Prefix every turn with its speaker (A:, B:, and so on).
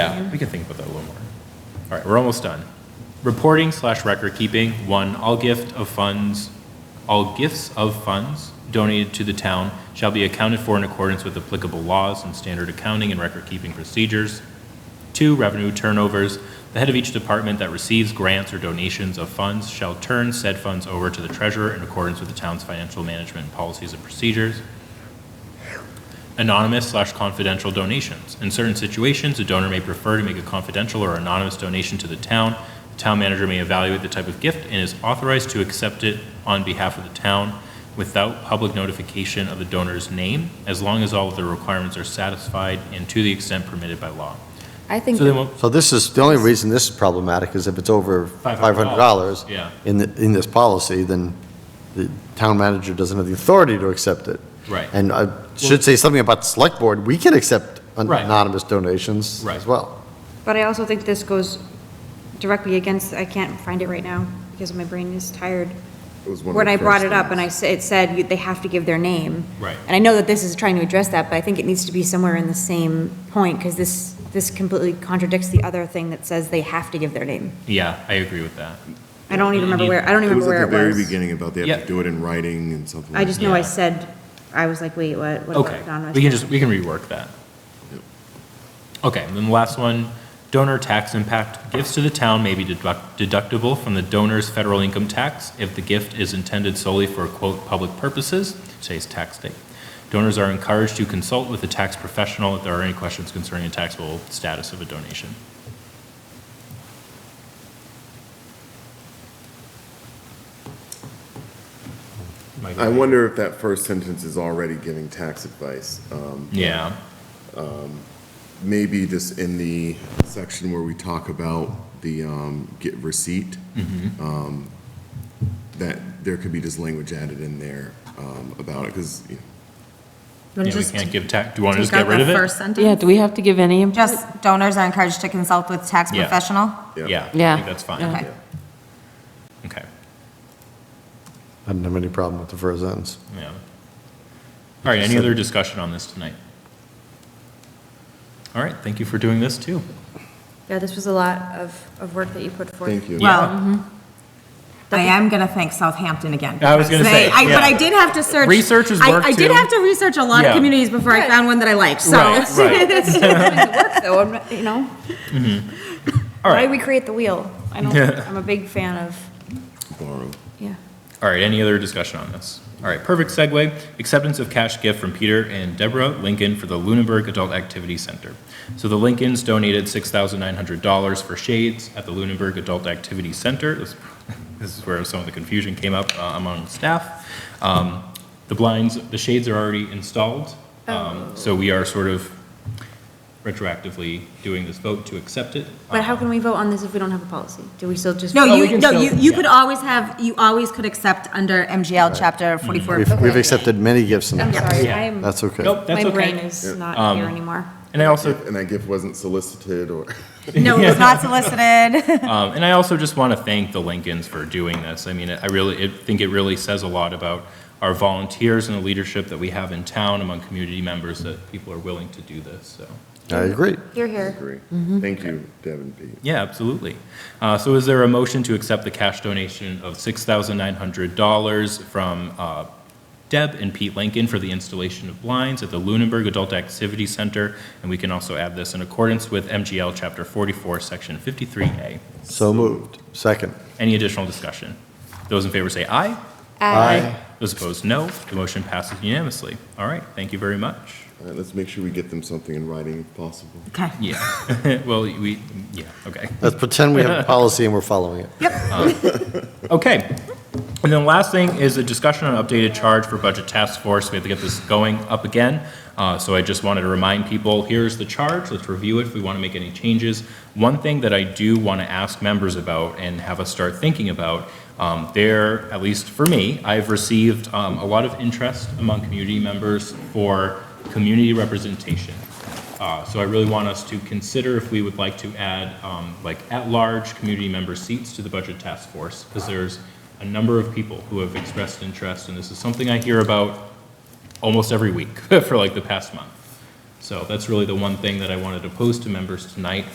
A: Yeah, we can think about that a little more. All right, we're almost done. Reporting slash record keeping, one, all gift of funds, all gifts of funds donated to the town shall be accounted for in accordance with applicable laws and standard accounting and record keeping procedures. Two, revenue turnovers, the head of each department that receives grants or donations of funds shall turn said funds over to the treasurer in accordance with the town's financial management policies and procedures anonymous slash confidential donations. In certain situations, a donor may prefer to make a confidential or anonymous donation to the town. The town manager may evaluate the type of gift and is authorized to accept it on behalf of the town without public notification of the donor's name, as long as all of the requirements are satisfied and to the extent permitted by law.
B: I think,
A: So then we'll-
C: So this is, the only reason this is problematic is if it's over
A: $500,
C: $500
A: yeah.
C: in, the- in this policy, then the town manager doesn't have the authority to accept it.
A: Right.
C: And I should say something about the select board, we can accept an-
A: Right.
C: anonymous donations
A: Right.
C: as well.
B: but I also think this goes directly against, I can't find it right now because my brain is tired.
D: was one of
B: When
D: the
B: I brought it
D: first
B: up and I,
D: things.
B: sa- it said you- they have to give their name.
A: Right.
B: And I know that this is trying to address that, but I think it needs to be somewhere in the same point because this, this completely contradicts the other thing that says they have to give their name.
A: Yeah, I agree with that.
B: I don't even remember where, I don't even remember where it was.
D: It was at the very beginning about they have
A: Yeah.
D: to do it in writing and something
B: I
D: like
B: just
D: that.
B: know I
A: Yeah.
B: said, I was like, wait, what? what
A: Okay,
B: about anonymous?
A: we can just, we can rework that. Okay, and then the last one, donor tax impact. Gifts to the town may be deduct- deductible from the donor's federal income tax if the gift is intended solely for, quote, "public purposes," today's tax day. Donors are encouraged to consult with a tax professional if there are any questions concerning the taxable status of a donation. Mike?
D: I wonder if that first sentence is already giving tax advice. Um,
A: Yeah,
D: Maybe just in the section where we talk about the um, get receipt,
A: Mm-hmm.
D: um, that there could be just language added in there um, about it, because,
B: Wanna
A: yeah, we
B: just
A: can't give tax, do you want to just
B: take out
A: get rid
B: the
A: of it?
B: First sentence?
E: Yeah, do we have to give any input?
F: Just donors are encouraged to consult with tax
A: Yeah.
F: professional?
D: yeah.
A: Yeah, I
E: Yeah,
A: think that's fine.
E: yeah.
F: Okay.
A: Okay.
C: I don't have any problem with the first sentence.
A: Yeah. All right, any other discussion on this tonight? All right, thank you for doing this, too.
B: Yeah, this was a lot of, of work that you put forth.
D: Thank you.
F: Well,
B: Mm-hmm.
F: I am going to thank Southampton again.
A: I was gonna
F: because
A: say,
F: they- I- But
A: yeah.
F: I did have to search.
A: Research is
F: I-
A: work,
F: I did
A: too.
F: have to research a lot
A: Yeah.
F: of communities before I found one that I liked, so.
A: Right, right.
B: So, I'm not- you know,
A: All
B: why do
A: right,
B: we create the wheel? I don't, I'm a big fan of,
D: Borrow.
B: yeah.
A: all right, any other discussion on this? All right, perfect segue. Acceptance of cash gift from Peter and Deborah Lincoln for the Lunenburg Adult Activity Center. So the Lincolns donated $6,900 for shades at the Lunenburg Adult Activity Center. This this is where some of the confusion came up uh, among staff. Um, The blinds, the shades are already installed,
F: Oh.
A: um, so we are sort of retroactively doing this vote to accept it.
B: But how can we vote on this if we don't have a policy? Do we still just?
F: No,
A: we
F: Oh, you,
A: can
F: no,
A: still-
F: you, you
A: yeah.
F: could always have, you always could accept under MGL Chapter 44.
C: We've, we've accepted many gifts in the
B: I'm
C: past.
B: sorry,
A: Yeah.
B: I am,
C: That's okay.
A: Nope, that's
B: my brain
A: okay. Um,
B: is not here anymore.
A: And I also,
D: And that gift wasn't solicited or,
F: No, it was not solicited.
A: Um, and I also just want to thank the Lincolns for doing this. I mean, I really, I think it really says a lot about our volunteers and the leadership that we have in town among community members that people are willing to do this, so.
C: I agree.
B: Here, here.
D: agree.
B: Mm-hmm.
D: Thank you, Devin Pete.
A: Yeah, absolutely. Uh, so is there a motion to accept the cash donation of six thousand nine hundred dollars from, uh, Deb and Pete Lincoln for the installation of blinds at the Lunenburg Adult Activity Center? And we can also add this in accordance with MGL Chapter forty-four, Section fifty-three A.
C: So moved. Second.
A: Any additional discussion? Those in favor say aye.
C: Aye.
A: Those opposed, no. The motion passes unanimously. All right, thank you very much.
D: All right, let's make sure we get them something in writing if possible.
F: Okay.
A: Yeah, well, we, yeah, okay.
C: Let's pretend we have a policy and we're following it.
A: Okay. And then last thing is a discussion on updated charge for budget task force. We have to get this going up again. Uh, so I just wanted to remind people, here's the charge. Let's review it if we want to make any changes. One thing that I do want to ask members about and have us start thinking about, um, there, at least for me, I've received, um, a lot of interest among community members for community representation. Uh, So I really want us to consider if we would like to add, um, like, at-large community member seats to the Budget Task Force, because there's a number of people who have expressed interest, and this is something I hear about almost every week for like the past month. So that's really the one thing that I wanted to pose to members tonight,